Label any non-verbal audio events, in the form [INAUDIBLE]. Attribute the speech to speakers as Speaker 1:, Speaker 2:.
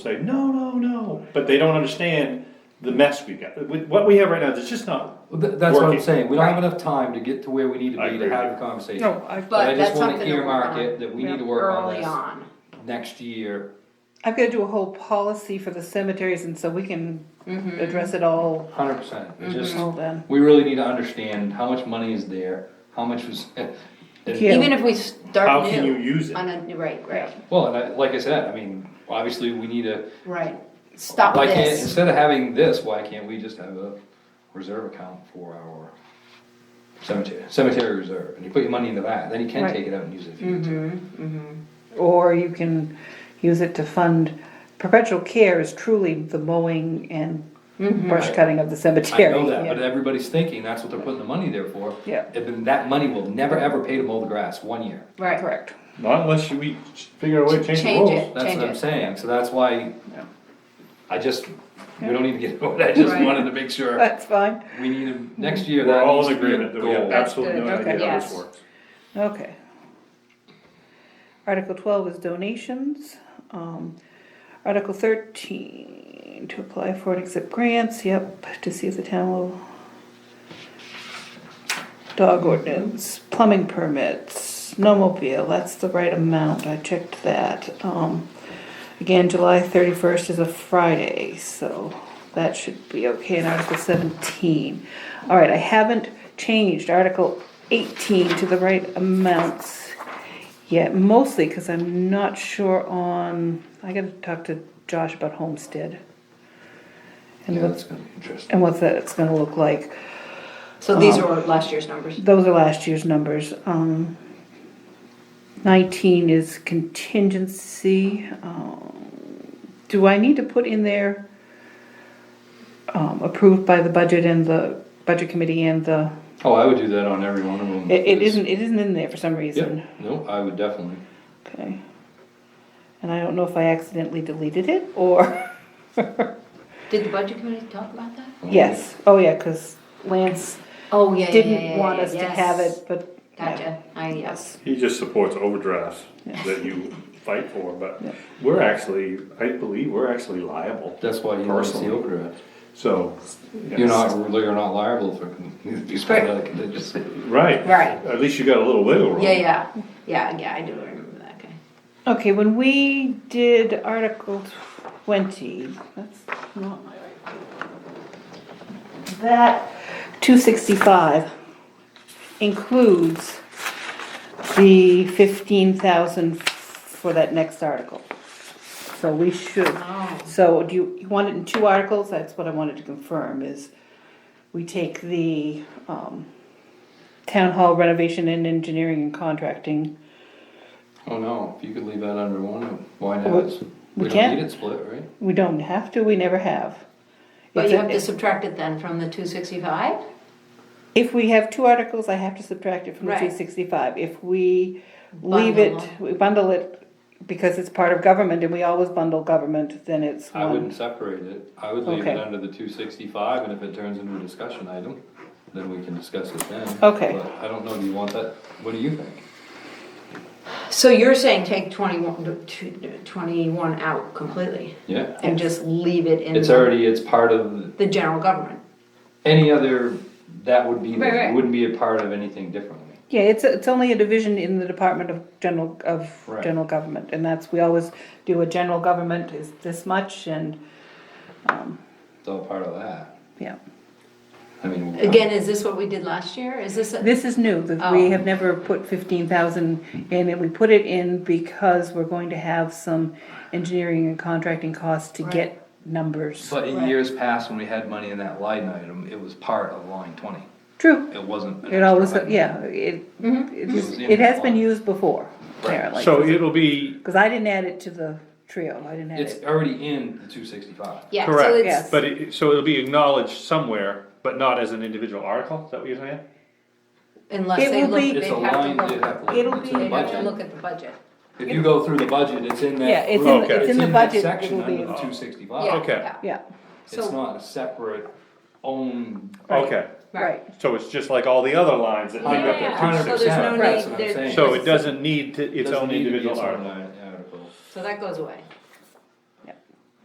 Speaker 1: say, no, no, no, but they don't understand the mess we've got. With what we have right now, it's just not,
Speaker 2: Well, th- That's what I'm
Speaker 1: Working.
Speaker 2: saying, we don't have enough time to get to where we need
Speaker 1: I
Speaker 2: to be
Speaker 1: agree
Speaker 2: to
Speaker 1: with
Speaker 2: have
Speaker 1: you.
Speaker 2: the conversation.
Speaker 3: No, I,
Speaker 2: But I
Speaker 4: But
Speaker 2: just
Speaker 4: that's
Speaker 2: wanna
Speaker 4: something to work
Speaker 2: earmark
Speaker 4: on.
Speaker 2: it that we need to
Speaker 4: Yeah,
Speaker 2: work on
Speaker 4: Early
Speaker 2: this.
Speaker 4: on.
Speaker 2: Next year,
Speaker 3: I've got to do a whole policy for the cemeteries, and so we can
Speaker 2: Mm-hmm.
Speaker 3: address it all,
Speaker 2: hundred percent, just,
Speaker 4: Mm-hmm.
Speaker 3: all then.
Speaker 2: we really need to understand how much money is there, how much was. [LAUGHS]
Speaker 3: Yeah.
Speaker 4: Even if we
Speaker 1: how
Speaker 4: start
Speaker 1: can you
Speaker 4: new
Speaker 1: use it?
Speaker 4: on a, right, right,
Speaker 2: Well, and I, like I said, I mean, obviously, we need to,
Speaker 4: right. Stop
Speaker 2: why can't,
Speaker 4: this.
Speaker 2: instead of having this, why can't we just have a reserve account for our cemetery, cemetery reserve, and you put your money into that, then you can
Speaker 3: Right.
Speaker 2: take it out and use it if you need to.
Speaker 3: Or you can use it to fund, perpetual care is truly the mowing and brush cutting of the
Speaker 2: Mm-hmm. I
Speaker 3: cemetery.
Speaker 2: know that, but
Speaker 3: yeah.
Speaker 2: everybody's thinking that's what they're putting the money there for.
Speaker 3: Yeah.
Speaker 2: And then that money will never ever pay to mow the grass, one year.
Speaker 4: Right.
Speaker 3: Correct.
Speaker 1: Not unless you- we figure a way to change the
Speaker 4: Change it.
Speaker 1: rules.
Speaker 2: That's
Speaker 4: Change
Speaker 2: what I'm
Speaker 4: it.
Speaker 2: saying, so that's why
Speaker 3: Yeah.
Speaker 2: I just, we don't need to get, [LAUGHS] over that. I just
Speaker 4: Right.
Speaker 2: wanted to make sure
Speaker 3: That's fine,
Speaker 2: we need to,
Speaker 3: Mm-hmm.
Speaker 2: next year,
Speaker 1: We're
Speaker 2: that
Speaker 1: all
Speaker 2: needs
Speaker 1: in
Speaker 2: to be a
Speaker 1: agreement that we have
Speaker 2: goal.
Speaker 1: absolutely no
Speaker 4: Good,
Speaker 1: idea
Speaker 4: okay.
Speaker 1: how this
Speaker 4: Yes.
Speaker 1: works.
Speaker 3: okay. Article twelve is donations, um, Article thirteen, to apply for and accept grants, yep, to see if the town will. Dog ordinance, plumbing permits, snowmobile, that's the right amount, I checked that, um. Again, July thirty-first is a Friday, so that should be okay in Article seventeen. All right, I haven't changed Article eighteen to the right amounts yet, mostly because I'm not sure on, I gotta talk to Josh about homestead. And
Speaker 2: Yeah,
Speaker 3: what,
Speaker 2: that's gonna be interesting.
Speaker 3: and what that's gonna look like.
Speaker 4: So these
Speaker 3: Um,
Speaker 4: are last year's numbers.
Speaker 3: Those are last year's numbers. Um, nineteen is contingency. Um, Do I need to put in there um, approved by the budget and the budget committee and the,
Speaker 2: Oh, I would do that on every one of them.
Speaker 3: it, it
Speaker 2: because-
Speaker 3: isn't, it isn't in there for some reason.
Speaker 2: Yep, no, I would definitely.
Speaker 3: Okay. And I don't know if I accidentally deleted it or, [LAUGHS]
Speaker 4: Did the budget committee talk about that?
Speaker 2: Um,
Speaker 3: yes, oh yeah, cause Lance
Speaker 4: Oh, yeah, yeah, yeah, yeah,
Speaker 3: didn't want
Speaker 4: yeah,
Speaker 3: us to
Speaker 4: yes.
Speaker 3: have it, but.
Speaker 4: Gotcha, I, yes.
Speaker 1: He just supports overdrafts
Speaker 3: Yeah.
Speaker 1: that you fight for, but
Speaker 3: Yeah.
Speaker 1: we're actually, I believe, we're actually liable.
Speaker 2: That's why you don't see
Speaker 1: Personally.
Speaker 2: overdraft.
Speaker 1: So.
Speaker 2: You're not, you're not liable for, you spend out of contingency.
Speaker 1: Right.
Speaker 4: Right.
Speaker 1: At least you got a little wiggle room.
Speaker 4: Yeah, yeah, yeah, yeah, I do remember that, okay.
Speaker 3: Okay, when we did Article twenty, that's not my right. paper. That two sixty-five includes the fifteen thousand for that next article. So we should,
Speaker 4: Oh.
Speaker 3: so do you, you want it in two articles? That's what I wanted to confirm is we take the, um, town hall renovation and engineering and contracting.
Speaker 2: Oh, no, if you could leave that under one, why not?
Speaker 3: Well,
Speaker 2: It's-
Speaker 3: we
Speaker 2: We
Speaker 3: can't.
Speaker 2: don't need it split, right?
Speaker 3: We don't have to, we never have.
Speaker 4: But
Speaker 3: It's
Speaker 4: you
Speaker 3: a-
Speaker 4: have to subtract it then from the two sixty-five?
Speaker 3: If we have two articles, I have to subtract it from the
Speaker 4: Right.
Speaker 3: two sixty-five. If we leave it,
Speaker 4: Bundle.
Speaker 3: we bundle it because it's part of government and we always bundle government, then it's
Speaker 2: I wouldn't
Speaker 3: one.
Speaker 2: separate it, I would leave it
Speaker 3: Um, Okay.
Speaker 2: under the two sixty-five, and if it turns into a discussion item, then we can discuss it then.
Speaker 3: Okay.
Speaker 2: But I don't know, do you want that, what do you think?
Speaker 4: So you're saying take twenty-one, two- 21 out completely
Speaker 2: Yeah,
Speaker 4: and just leave it in
Speaker 2: it's already, it's part of
Speaker 4: the general government?
Speaker 2: any other, that would be,
Speaker 4: Right, right.
Speaker 2: wouldn't be a part of anything differently.
Speaker 3: Yeah, it's, it's only a division in the Department of General, of
Speaker 2: Right.
Speaker 3: General Government, and that's, we always do a general government is this much and,
Speaker 2: It's all part of that,
Speaker 3: yeah.
Speaker 2: I mean. we'll-
Speaker 4: Again, is this what we did last year? Is this, a-
Speaker 3: This is new, that we
Speaker 4: Oh.
Speaker 3: have never put fifteen thousand in, and we put it in because we're going to have some engineering and contracting costs to
Speaker 4: Right.
Speaker 3: get numbers.
Speaker 2: But in
Speaker 4: Right.
Speaker 2: years past, when we had money in that line item, it was part of line twenty,
Speaker 3: True,
Speaker 2: it wasn't. an
Speaker 3: it always,
Speaker 2: extra item.
Speaker 3: yeah, it, it
Speaker 4: Mm-hmm.
Speaker 3: just-
Speaker 2: It was
Speaker 3: it has been
Speaker 2: in-
Speaker 3: used before,
Speaker 2: Right.
Speaker 3: apparently.
Speaker 1: So it'll be,
Speaker 3: Cause I didn't add it to the trio, I didn't add
Speaker 2: It's
Speaker 3: it,
Speaker 2: already in the two sixty-five.
Speaker 4: yeah, so
Speaker 1: correct,
Speaker 3: Yes.
Speaker 4: it's,
Speaker 1: but it, so it'll be acknowledged somewhere, but not as an individual article, is that what you're saying?
Speaker 4: unless
Speaker 3: It
Speaker 4: they
Speaker 3: will
Speaker 4: look,
Speaker 3: be-
Speaker 4: they
Speaker 2: It's a
Speaker 4: have
Speaker 2: line,
Speaker 4: to
Speaker 2: they
Speaker 4: look.
Speaker 2: have to
Speaker 3: It'll
Speaker 2: look, it's in
Speaker 3: be-
Speaker 2: the
Speaker 4: They have to
Speaker 2: budget.
Speaker 4: look at the budget.
Speaker 2: If you go through the budget, it's in that.
Speaker 3: Yeah, it's in
Speaker 2: group.
Speaker 1: the- it's in
Speaker 3: the
Speaker 2: that
Speaker 3: budget,
Speaker 2: Section
Speaker 3: it'll be
Speaker 2: under
Speaker 3: in-
Speaker 2: two
Speaker 4: Yeah,
Speaker 2: sixty-five.
Speaker 1: Okay.
Speaker 4: yeah.
Speaker 3: yeah,
Speaker 2: It's
Speaker 4: So-
Speaker 2: not a separate own.
Speaker 1: Okay,
Speaker 3: right,
Speaker 1: so it's just like all the other lines that make
Speaker 4: Yeah,
Speaker 1: up
Speaker 4: yeah.
Speaker 1: the
Speaker 4: So
Speaker 1: two
Speaker 4: there's no
Speaker 2: That's
Speaker 4: need-
Speaker 2: what I'm
Speaker 4: there-
Speaker 2: saying.
Speaker 1: sixty. So it doesn't need to, its
Speaker 2: Doesn't
Speaker 1: own
Speaker 2: need to be
Speaker 1: individual
Speaker 2: its own
Speaker 1: article.
Speaker 2: line article.
Speaker 4: So that goes away.